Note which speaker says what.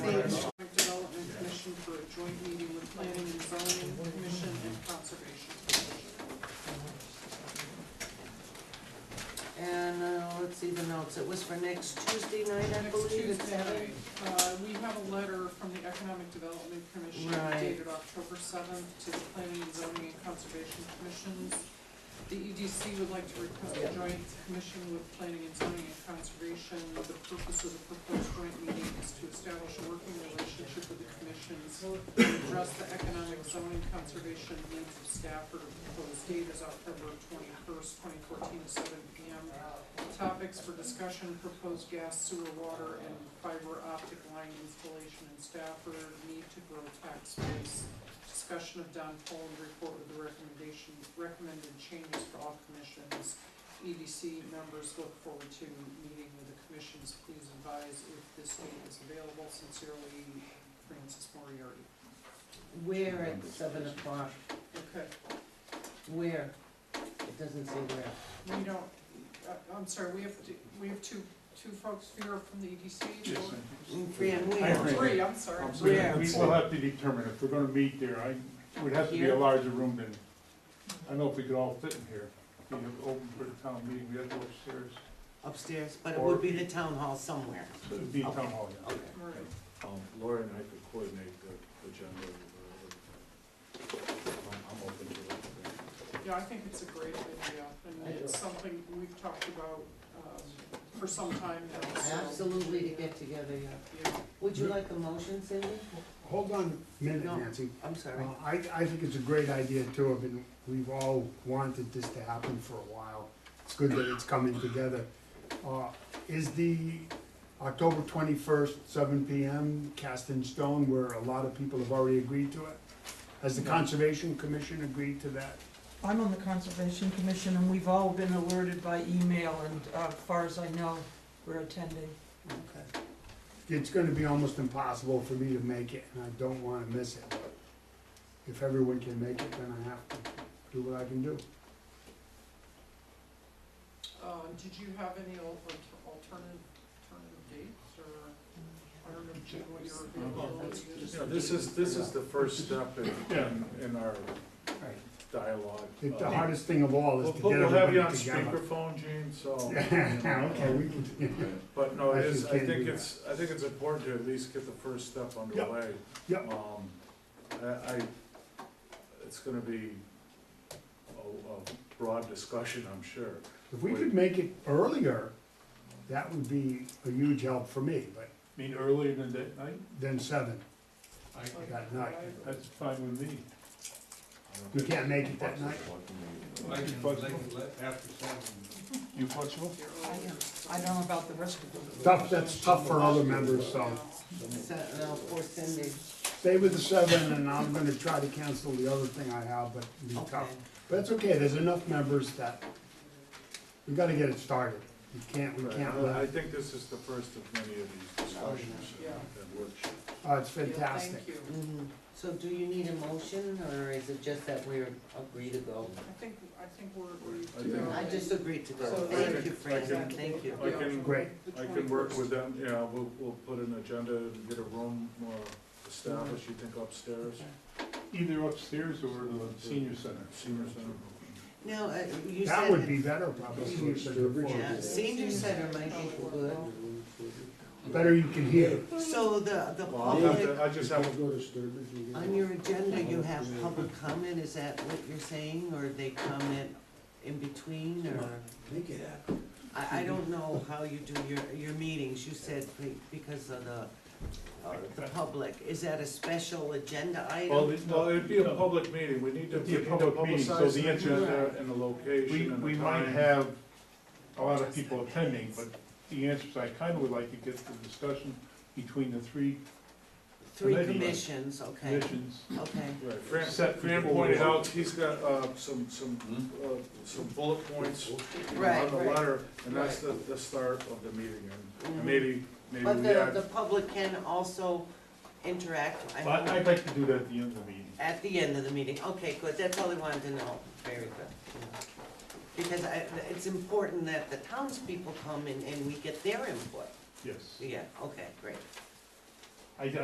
Speaker 1: joint meeting with planning and zoning commission and conservation commission.
Speaker 2: And, uh, let's see the notes, it was for next Tuesday night, I
Speaker 1: Next
Speaker 2: believe, at
Speaker 1: Tuesday
Speaker 2: seven?
Speaker 1: night, uh, we have a letter from the Economic Development Commission
Speaker 2: Right.
Speaker 1: dated October seventh to the Planning and Zoning and Conservation Commissions. The EDC would like to request a
Speaker 2: Yeah.
Speaker 1: joint commission with Planning and Zoning and Conservation. The purpose of the proposed joint meeting is to establish a working relationship with the commissions to address the economic zoning conservation needs of Stafford. Proposed date is October twenty-first, twenty fourteen, seven P M. Topics for discussion, proposed gas, sewer, water, and fiber optic line installation in Stafford, need to grow tax base. Discussion of Don Poland report with the recommendation, recommended changes for all commissions. EDC members look forward to meeting with the commissions, please advise if this date is available, sincerely, Francis Moriarty.
Speaker 2: Where at seven o'clock,
Speaker 1: Okay,
Speaker 2: where? It doesn't say where.
Speaker 1: we don't, I- I'm sorry, we have, to- we have two, two folks here from the EDC?
Speaker 3: Yes,
Speaker 1: or-
Speaker 2: Fran, where?
Speaker 3: agree.
Speaker 1: Three, I'm sorry.
Speaker 3: I'm sorry.
Speaker 2: Yeah.
Speaker 3: we will have to determine if we're gonna meet there, I, it would have to be
Speaker 2: Here?
Speaker 3: a larger room than, I don't know if we could all fit in here. We have open for the town meeting, we have to go upstairs,
Speaker 2: Upstairs, but it would be the town hall somewhere.
Speaker 3: so it'd be town hall, yeah.
Speaker 2: Okay.
Speaker 1: All right.
Speaker 4: Um, Laura and I could coordinate the agenda. uh, I'm I'm open to it.
Speaker 1: Yeah, I think it's a great idea,
Speaker 2: I
Speaker 1: and
Speaker 2: do.
Speaker 1: it's something we've talked about, um, for some time now, so.
Speaker 2: Absolutely to get together, yeah.
Speaker 1: Yeah,
Speaker 2: Would you like a motion, Cindy? Oh,
Speaker 5: Hold on a minute,
Speaker 2: No.
Speaker 5: Nancy.
Speaker 2: I'm
Speaker 5: Uh,
Speaker 2: sorry.
Speaker 5: I, I think it's a great idea too, I mean, we've all wanted this to happen for a while. It's good that it's coming together. Uh, Is the October twenty-first, seven P M, cast in stone where a lot of people have already agreed to it? Has the Conservation Commission agreed to that?
Speaker 6: I'm on the Conservation Commission, and we've all been alerted by email, and uh, as far as I know, we're attending.
Speaker 2: Okay.
Speaker 5: It's gonna be almost impossible for me to make it, and I don't wanna miss it. If everyone can make it, then I have to do what I can do.
Speaker 1: uh, did you have any al- alter- alternative, alternative dates, or, I don't know, Jim, what your availability is?
Speaker 4: Yeah, This is, this is the first step in, in- in our
Speaker 5: Right.
Speaker 4: dialogue.
Speaker 5: The- The
Speaker 4: Uh,
Speaker 5: hardest thing of all
Speaker 4: We'll
Speaker 5: is to
Speaker 4: put-
Speaker 5: get
Speaker 4: we'll have
Speaker 5: everybody
Speaker 4: you on
Speaker 5: together.
Speaker 4: speakerphone, Gene, so.
Speaker 5: Yeah, okay, we can,
Speaker 4: But no, it
Speaker 5: Actually,
Speaker 4: is, I
Speaker 5: can't do
Speaker 4: think
Speaker 5: that.
Speaker 4: it's, I think it's important to at least get the first step underway.
Speaker 5: Yep.
Speaker 4: Um, I, I, it's gonna be a, a broad discussion, I'm sure.
Speaker 5: if we could make it earlier, that would be a huge help for me, but
Speaker 3: Meet earlier than that night,
Speaker 5: then seven,
Speaker 3: I,
Speaker 5: I got night.
Speaker 3: that's fine with me.
Speaker 5: You can't make it that night?
Speaker 7: I can,
Speaker 3: Fuck.
Speaker 7: I can let- after seven.
Speaker 3: You flexible?
Speaker 1: Your
Speaker 6: I
Speaker 1: earlier-
Speaker 6: don't- I don't know about the rest of them.
Speaker 5: Tough, that's tough for other members,
Speaker 2: Um,
Speaker 5: so
Speaker 2: So, now, for Cindy.
Speaker 5: stay with the seven, and I'm gonna try to cancel the other thing I have, but it'll be
Speaker 2: Okay.
Speaker 5: tough. But it's okay, there's enough members that, we gotta get it started. You can't, we
Speaker 4: Right,
Speaker 5: can't
Speaker 4: I I
Speaker 5: let,
Speaker 4: think this is the first of many of these discussions
Speaker 1: Yeah.
Speaker 4: and workshops.
Speaker 5: oh, it's
Speaker 1: Yeah,
Speaker 5: fantastic.
Speaker 1: Thank you.
Speaker 2: Mhm. So do you need a motion, or is it just that we're agree to go?
Speaker 1: I think, I think we're,
Speaker 4: I
Speaker 1: we.
Speaker 4: think-
Speaker 2: I just agreed to go.
Speaker 1: So-
Speaker 2: Thank you,
Speaker 4: I
Speaker 2: Fran,
Speaker 4: can-
Speaker 2: thank you.
Speaker 4: I can-
Speaker 5: Great.
Speaker 4: I can work with them, Yeah, we'll, we'll put an agenda and get a room uh, established, you think upstairs,
Speaker 3: Either upstairs or the Uh, senior center.
Speaker 4: senior center.
Speaker 2: Now, uh, you said.
Speaker 5: That would be better, probably. you said before.
Speaker 2: Yeah, senior center might be good.
Speaker 1: Oh,
Speaker 5: Better you can hear.
Speaker 2: So the, the
Speaker 4: Well, I'll have
Speaker 2: public,
Speaker 4: to, I just have,
Speaker 7: go to Sturbridge and
Speaker 2: on your agenda, you have public comment, is that what you're saying, or they comment in between, or?
Speaker 7: Make it happen.
Speaker 2: I, I don't know how you do your, your meetings, you said be- because of the, uh, the public, is that a special agenda
Speaker 4: well,
Speaker 2: item?
Speaker 4: it- well, it'd be a public meeting, we need to,
Speaker 3: It'd
Speaker 4: we
Speaker 3: be a
Speaker 4: need to
Speaker 3: public meeting, so
Speaker 4: publicize
Speaker 3: the
Speaker 4: the
Speaker 3: answer-
Speaker 4: agenda and the
Speaker 3: We,
Speaker 4: location and
Speaker 3: we
Speaker 4: the
Speaker 3: might
Speaker 4: time.
Speaker 3: have a lot of people attending, but the answer is I kinda would like to get the discussion between the three
Speaker 2: Three
Speaker 3: committee.
Speaker 2: commissions, okay,
Speaker 3: commissions.
Speaker 2: okay,
Speaker 4: Right, Fran,
Speaker 3: Set
Speaker 4: Fran
Speaker 3: before
Speaker 4: pointed
Speaker 3: we-
Speaker 4: out, he's got, uh, some, some,
Speaker 3: Hmm?
Speaker 4: uh, some bullet points you know,
Speaker 2: Right,
Speaker 4: on the
Speaker 2: right.
Speaker 4: letter, and that's the, the start of the meeting,
Speaker 2: Mhm.
Speaker 4: and maybe, maybe
Speaker 2: but
Speaker 4: we
Speaker 2: the,
Speaker 4: add.
Speaker 2: the public can also interact, I
Speaker 3: But
Speaker 2: know,
Speaker 3: I'd like to do that at the end of the meeting.
Speaker 2: at the end of the meeting, okay, good, that's all I wanted to know, very good. Because I, it's important that the townspeople come and, and we get their input,
Speaker 3: Yes.
Speaker 2: yeah, okay, great.
Speaker 3: I,